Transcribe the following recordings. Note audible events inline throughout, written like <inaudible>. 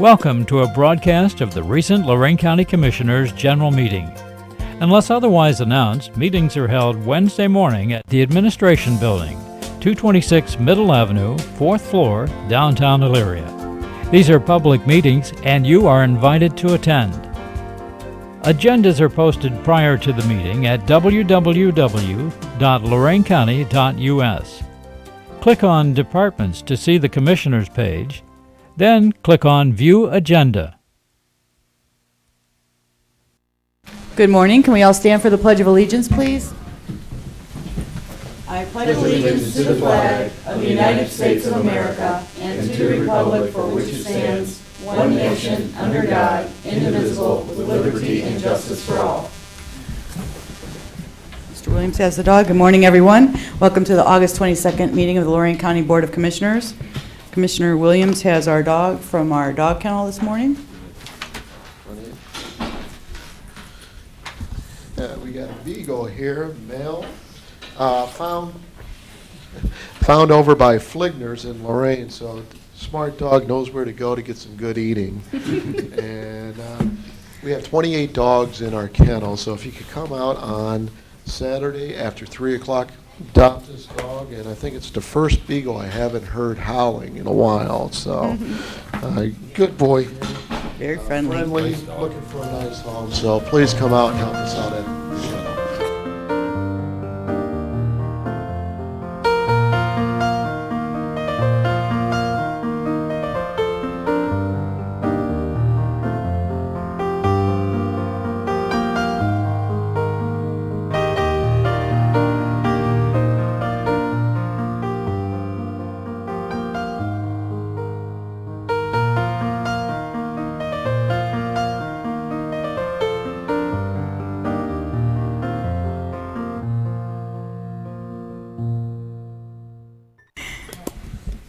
Welcome to a broadcast of the recent Lorraine County Commissioners' General Meeting. Unless otherwise announced, meetings are held Wednesday morning at the Administration Building, 226 Middle Avenue, 4th floor, downtown Elyria. These are public meetings and you are invited to attend. Agendas are posted prior to the meeting at www.loraincounty.us. Click on Departments to see the Commissioners page, then click on View Agenda. Good morning. Can we all stand for the Pledge of Allegiance, please? I pledge allegiance to the flag of the United States of America and to the republic for which it stands, one nation, under God, indivisible, with liberty and justice for all. Mr. Williams has the dog. Good morning, everyone. Welcome to the August 22nd meeting of the Lorraine County Board of Commissioners. Commissioner Williams has our dog from our dog kennel this morning. Uh, we got a beagle here, male, uh, found, found over by Fligner's in Lorraine, so smart dog knows where to go to get some good eating. And, uh, we have twenty-eight dogs in our kennel, so if you could come out on Saturday after three o'clock, adopt this dog, and I think it's the first beagle I haven't heard howling in a while, so, uh, good boy Very friendly. friendly, looking for a nice home, so please come out and help us out at the shuttle.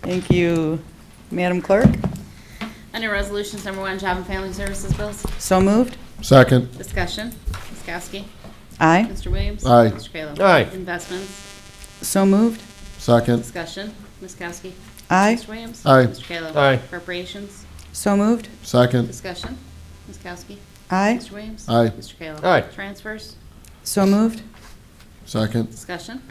Thank you. Madam Clerk, Under Resolutions Number One, Job and Family Services Bills, so moved. Second. discussion. Ms. Kowski. Aye, Mr. Williams. Aye. Mr. Kayla. Aye. Investments, so moved. Second. discussion. Ms. Kowski. Aye, Mr. Williams. Aye. Mr. Kayla. Aye. Appropriations, so moved. Second. discussion. Ms. Kowski. Aye, Mr. Williams. Aye. Mr. Kayla. Aye. Transfers, so moved. Second. discussion.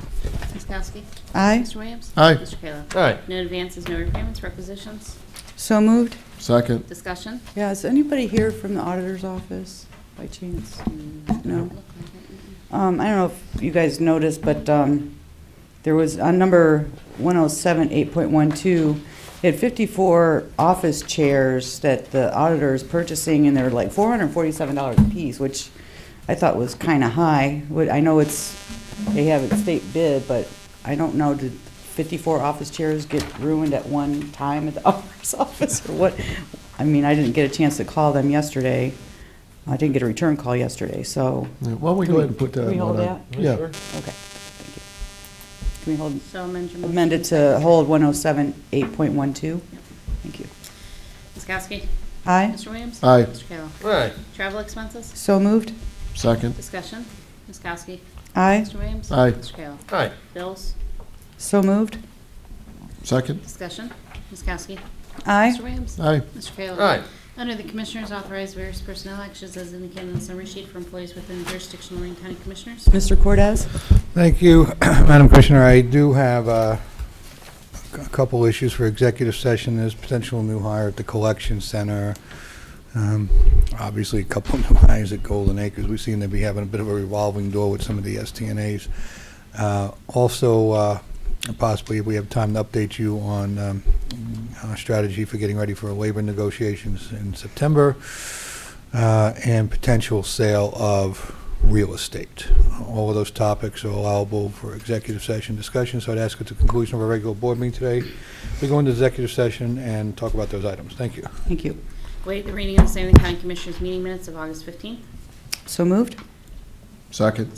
Ms. Kowski. Aye, Mr. Williams. Aye. Mr. Kayla. Aye. No advances, no repayments, requisitions, so moved. Second. discussion. Yeah, is anybody here from the auditor's office by chance? No. Look like it. Um, I don't know if you guys noticed, but, um, there was on number one oh seven, eight point one two, it had fifty-four office chairs that the auditor is purchasing, and they're like four hundred and forty-seven dollars a piece, which I thought was kinda high. Would, I know it's, they have a state bid, but I don't know, did fifty-four office chairs get ruined at one time at the <laughs> auditor's office, or what? I mean, I didn't get a chance to call them yesterday. I didn't get a return call yesterday, so, Yeah, Why don't we go ahead and put that Can we one hold on? Yeah. okay, thank you. Can we hold So amend your motion. Amend it to hold 107, 8.12. Thank you. Ms. Kowski. Aye, Mr. Williams. Aye. Mr. Kayla. Right. Travel expenses, so moved. Second. Discussion, Ms. Kowski. Aye, Mr. Williams. Aye. Mr. Kayla. Aye. Bills, so moved. Second. discussion, Ms. Kowski. Aye, Mr. Williams. Aye. Mr. Kayla. Aye. Under the Commissioners, authorize various personnel actions as indicated on the summary sheet for employees within the jurisdiction of Lorraine County Commissioners. Mr. Cordez? Thank you, <clears throat> Madam Commissioner. I do have uh, a couple issues for executive session. There's potential new hire at the collection center. Um, Obviously, a couple <laughs> of new hires at Golden Acres. We seem to be having a bit of a revolving door with some of the STNAs. Uh, Also, uh, possibly, if we have time to update you on um, our strategy for getting ready for labor negotiations in September uh, and potential sale of real estate. All of those topics are allowable for executive session discussion, so I'd ask at the conclusion of our regular board meeting today, we go into executive session and talk about those items. Thank you. Thank you. Wait the reading of the same in the County Commissioners meeting minutes of August 15th. So moved. Second.